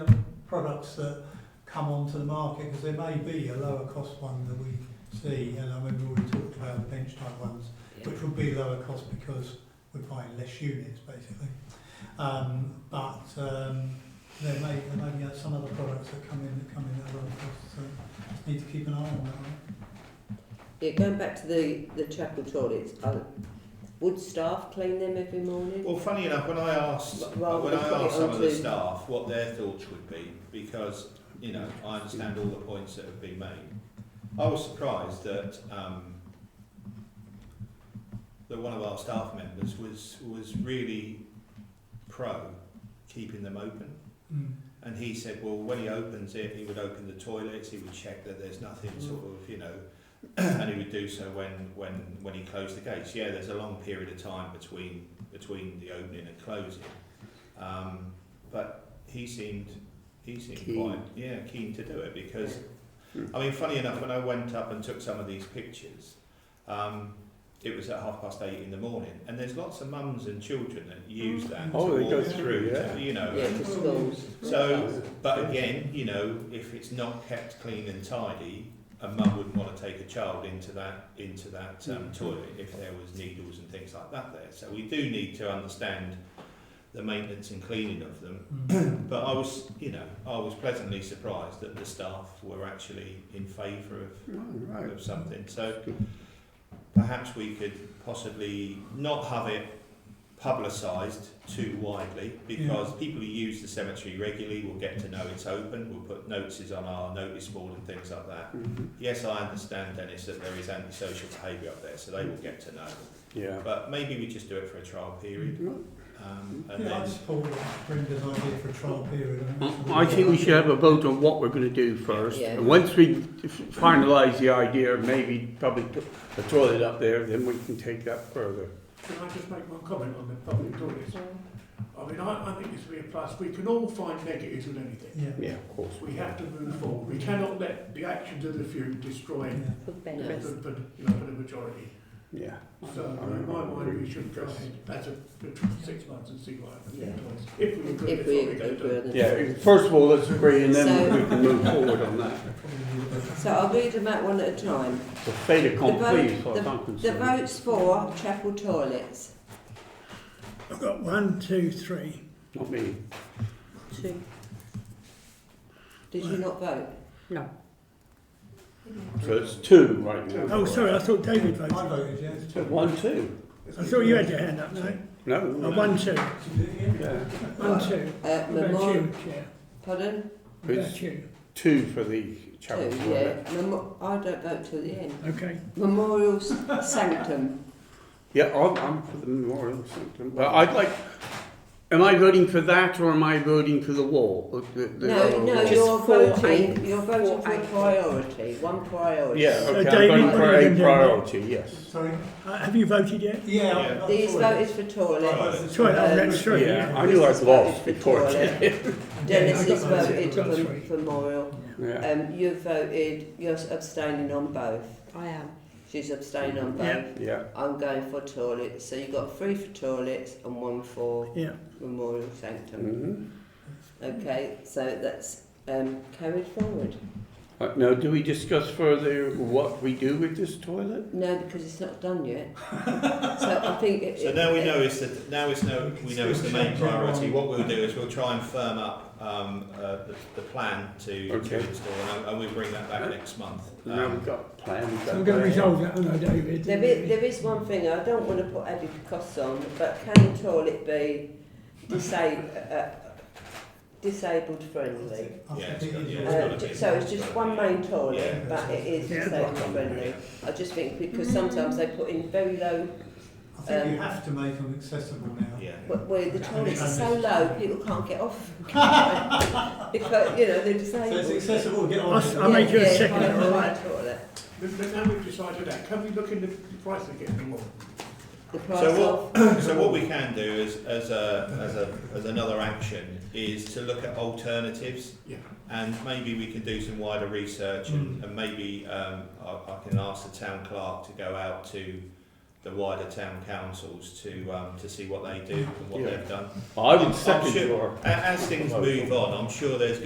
products that come onto the market because there may be a lower cost one that we see, and I remember we talked about the bench type ones, Yeah. which would be lower cost because we're buying less units basically. Um, but um, there may there may be some other products that come in that come in at lower cost, so need to keep an eye on that. Yeah, going back to the, the chapel toilets, are, would staff clean them every morning? Well, funny enough, when I asked Rather when than put I it asked some of the onto- staff what their thoughts would be, because you know I understand all the points that have been made, I was surprised that um, that one of our staff members was was really pro keeping them open. Mm. And he said, well, when he opens it, he would open the toilets, he would check that there's nothing Mm. sort of, you know, and he would do so when, when, when he closed the gates. Yeah, there's a long period of time between, between the opening and closing. Um, but he seemed, he seemed Keen. quite, yeah, keen to do it because, Yeah. I mean, funny enough, when I went up and took some of these pictures, um, it was at half past eight in the morning, and there's lots of mums and children that use that Oh, to they go walk through, yeah. to, you know, Mm. Yeah, to schools. So, But again, you know, if it's not kept clean and tidy, a mum wouldn't want to take a child into that into that um, toilet if there was needles and things like that there. So we do need to understand the maintenance and cleaning of them. Mm. But I was, you know, I was pleasantly surprised that the staff were actually in favour Right, of, right. of something. So perhaps we could possibly not have it publicised too widely because people who use the cemetery regularly will get to know it's open. We'll put notices on our notice board and things like that. Mhm. Yes, I understand, Dennis, that there is antisocial behaviour up there, so they will get to know. Yeah. But maybe we just do it for a trial period. Um, and Yeah, I then, support Brenda's idea for a trial period. I think it's- I think we should have a vote on what we're going to do first. Yeah. And once we finalise the idea of maybe probably put a toilet up there, then we can take that further. Can I just make one comment on the public toilets? I mean, I, I think this would be a plus. We can all find negatives with anything. Yeah. Yeah, of course. We have to move forward. We cannot let the actions of the few destroy yeah. the, No. the, the, you know, for the majority. Yeah. So in my mind, we should go ahead as a, for six months and see what happens. Yeah. If we agree, If we before go agree to on the Yeah, first of all, let's agree and then So- we can move forward on that. So I'll read them out one at a time. The fait accompli, as far the, as I'm vote- the concerned. votes for chapel toilets. I've got one, two, three. Not me. Two. Did you not vote? So it's two right now. Oh, sorry, I thought David I voted. voted yes. One, two. I thought you had your hand up, no? No. Oh, one, two. Yeah. One, two. Uh, What about memorial. you, Chair? Pardon? What about you? Two for the chapel Two, toilet. yeah. Memo- I don't vote till the end. Okay. Memorial s- sanctum. Yeah, I'm, I'm for the memorial sanctum. But I'd like, am I voting for that or am I voting for the wall? The, the, the No, no, wall? you're for voting, eight- you're voting for for eight. priority, one priority. Yeah, So okay, David, I'm what voting are for you a gonna do? priority, yes. Sorry. Uh, Have you voted yet? Yeah. I- I These thought it voted for toilet. was- Sorry, oh, that's true. Yeah, I knew I'd lost before. Dennis Yeah, I has got those. voted Got for three. for memorial. Yeah. Um, you've voted, you're abstaining on both. I am. She's abstaining on Yeah. both. Yeah, I'm going for toilets. So you've got three for toilets and one for Yeah. memorial sanctum. mhm. Okay, so that's um, carried forward. Uh, Now, do we discuss further what we do with this toilet? No, because it's not done yet. so I think. It, so it- now we know it's the now it's no we know it's the main priority. What we'll do is we'll try and firm up um, uh, the, the plan to, Okay. to install, and, I, and we'll bring that back next month. Now Um, we've got a plan. we've got I'm a going to plan. resolve that, aren't I, David? There is, there is one thing, I don't want to put added costs on, but can the toilet be disa- uh, disabled friendly? I Yeah, think it's got- it is. yeah, it's Uh, ju- so it's just one main toilet, Yeah. but it is Yeah. disabled friendly. I just think because sometimes they put in very low, I think you Um, have to make them accessible now. yeah. wh- where the toilets are so low, people can't get off. Because, you know, they're So it's disabled. accessible, get on. I'll s- I'll make you a Yeah, yeah, second, private all right? toilet. But, but now we've decided that. Can we look into the price again tomorrow? The price So of, what, so what we can do is, as a, as a, as another action, is to look at alternatives. Yeah. And maybe we can do some wider research and, and maybe, um, I, I can ask the town clerk to go out to the wider town councils to, um, to see what they do and what Yeah. they've done. I I'm would second sure- your. A- As things move on, I'm sure there's